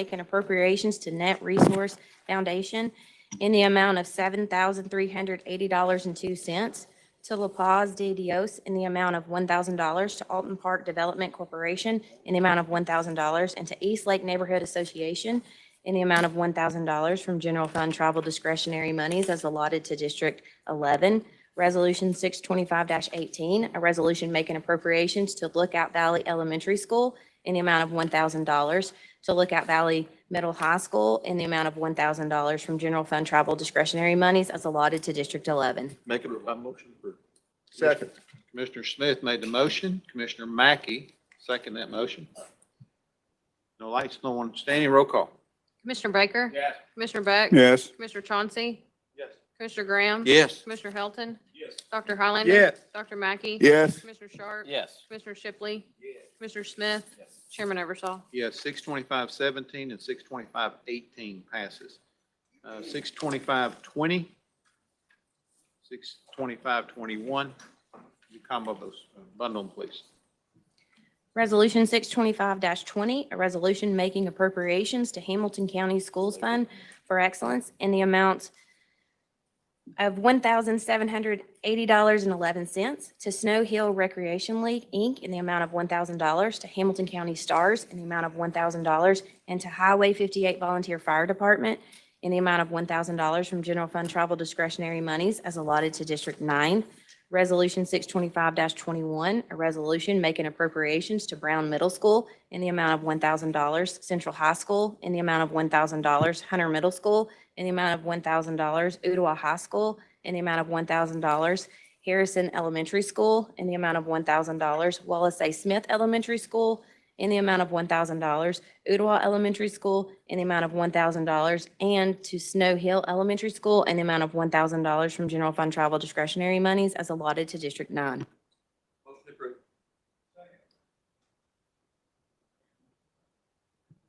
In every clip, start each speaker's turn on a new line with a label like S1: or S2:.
S1: making appropriations to Net Resource Foundation in the amount of seven thousand three hundred eighty dollars and two cents to La Paz de Dios in the amount of one thousand dollars to Alton Park Development Corporation in the amount of one thousand dollars and to East Lake Neighborhood Association in the amount of one thousand dollars from general fund travel discretionary monies as allotted to District eleven. Resolution six twenty-five eighteen, a resolution making appropriations to Lookout Valley Elementary School in the amount of one thousand dollars to Lookout Valley Middle High School in the amount of one thousand dollars from general fund travel discretionary monies as allotted to District eleven.
S2: Make it by motion approved.
S3: Second.
S2: Commissioner Smith made the motion. Commissioner Mackey second that motion. No lights, no one standing. Roll call.
S4: Commissioner Baker?
S2: Yes.
S4: Commissioner Beck?
S3: Yes.
S4: Commissioner Chauncey?
S2: Yes.
S4: Commissioner Graham?
S2: Yes.
S4: Commissioner Helton,
S2: Yes.
S4: Dr. Highlander?
S3: Yes.
S4: Dr. Mackey?
S3: Yes.
S4: Commissioner Sharp?
S2: Yes.
S4: Commissioner Shipley? Commissioner Smith? Chairman Eversol.
S2: Yes, six twenty-five seventeen and six twenty-five eighteen passes. Uh, six twenty-five twenty, six twenty-five twenty-one, you combo those, uh, bundle them, please.
S1: Resolution six twenty-five twenty, a resolution making appropriations to Hamilton County Schools Fund for Excellence in the amount of one thousand seven hundred eighty dollars and eleven cents to Snow Hill Recreation League, Inc. in the amount of one thousand dollars, to Hamilton County Stars in the amount of one thousand dollars, and to Highway fifty-eight Volunteer Fire Department in the amount of one thousand dollars from general fund travel discretionary monies as allotted to District Nine. Resolution six twenty-five twenty-one, a resolution making appropriations to Brown Middle School in the amount of one thousand dollars, Central High School in the amount of one thousand dollars, Hunter Middle School in the amount of one thousand dollars, Udoa High School in the amount of one thousand dollars, Harrison Elementary School in the amount of one thousand dollars, Wallace A. Smith Elementary School in the amount of one thousand dollars, Udoa Elementary School in the amount of one thousand dollars, and to Snow Hill Elementary School in the amount of one thousand dollars from general fund travel discretionary monies as allotted to District Nine.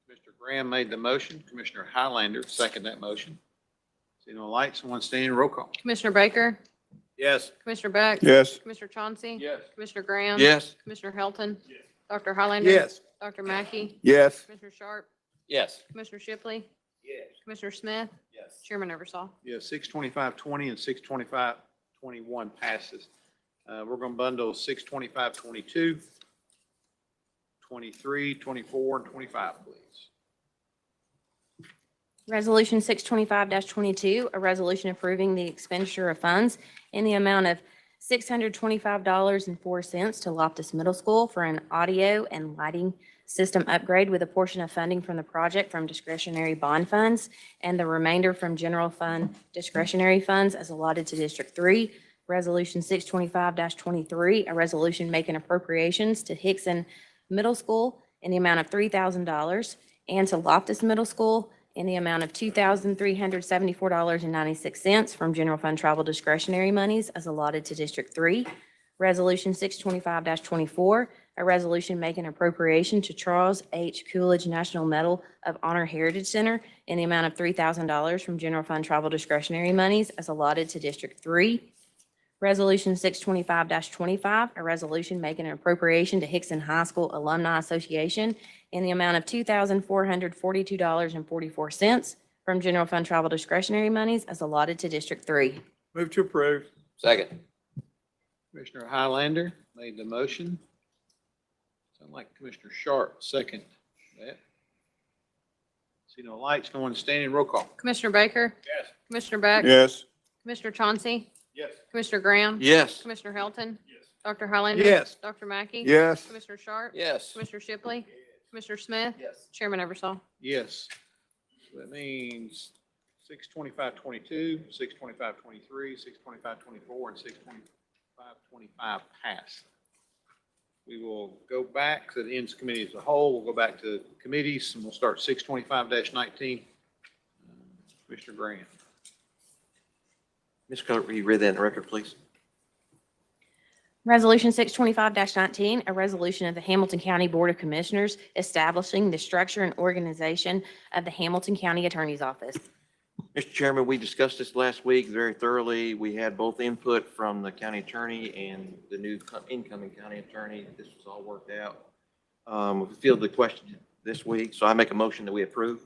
S2: Mr. Graham made the motion. Commissioner Highlander second that motion. See no lights, no one standing. Roll call.
S4: Commissioner Baker?
S2: Yes.
S4: Commissioner Beck?
S3: Yes.
S4: Commissioner Chauncey?
S2: Yes.
S4: Commissioner Graham?
S2: Yes.
S4: Commissioner Helton, Dr. Highlander? Dr. Mackey?
S3: Yes.
S4: Commissioner Sharp?
S2: Yes.
S4: Commissioner Shipley?
S2: Yes.
S4: Commissioner Smith?
S2: Yes.
S4: Chairman Eversol.
S2: Yeah, six twenty-five twenty and six twenty-five twenty-one passes. Uh, we're gonna bundle six twenty-five twenty-two, twenty-three, twenty-four, and twenty-five, please.
S1: Resolution six twenty-five twenty-two, a resolution approving the expenditure of funds in the amount of six hundred twenty-five dollars and four cents to Loftus Middle School for an audio and lighting system upgrade with a portion of funding from the project from discretionary bond funds and the remainder from general fund discretionary funds as allotted to District Three. Resolution six twenty-five twenty-three, a resolution making appropriations to Hickson Middle School in the amount of three thousand dollars and to Loftus Middle School in the amount of two thousand three hundred seventy-four dollars and ninety-six cents from general fund travel discretionary monies as allotted to District Three. Resolution six twenty-five twenty-four, a resolution making appropriation to Charles H. Coolidge National Medal of Honor Heritage Center in the amount of three thousand dollars from general fund travel discretionary monies as allotted to District Three. Resolution six twenty-five twenty-five, a resolution making an appropriation to Hickson High School Alumni Association in the amount of two thousand four hundred forty-two dollars and forty-four cents from general fund travel discretionary monies as allotted to District Three.
S3: Move to approve.
S5: Second.
S2: Commissioner Highlander made the motion. Sound like Commissioner Sharp, second that. See no lights, no one standing. Roll call.
S4: Commissioner Baker?
S2: Yes.
S4: Commissioner Beck?
S3: Yes.
S4: Commissioner Chauncey?
S2: Yes.
S4: Commissioner Graham?
S5: Yes.
S4: Commissioner Helton,
S2: Yes.
S4: Dr. Highlander?
S3: Yes.
S4: Dr. Mackey?
S3: Yes.
S4: Commissioner Sharp?
S5: Yes.
S4: Commissioner Shipley? Commissioner Smith?
S5: Yes.
S4: Chairman Eversol.
S2: Yes. So That means six twenty-five twenty-two, six twenty-five twenty-three, six twenty-five twenty-four, and six twenty-five twenty-five pass. We will go back to the ends committee as a whole. We'll go back to committees and we'll start six twenty-five nineteen. Uh, Commissioner Graham.
S5: Ms. Cook, will you read that in the record, please?
S1: Resolution six twenty-five nineteen, a resolution of the Hamilton County Board of Commissioners establishing the structure and organization of the Hamilton County Attorney's Office.
S5: Mr. Chairman, we discussed this last week very thoroughly. We had both input from the county attorney and the new co- incoming county attorney. This was all worked out. Um, we fielded the question, this week, so I make a motion that we approve.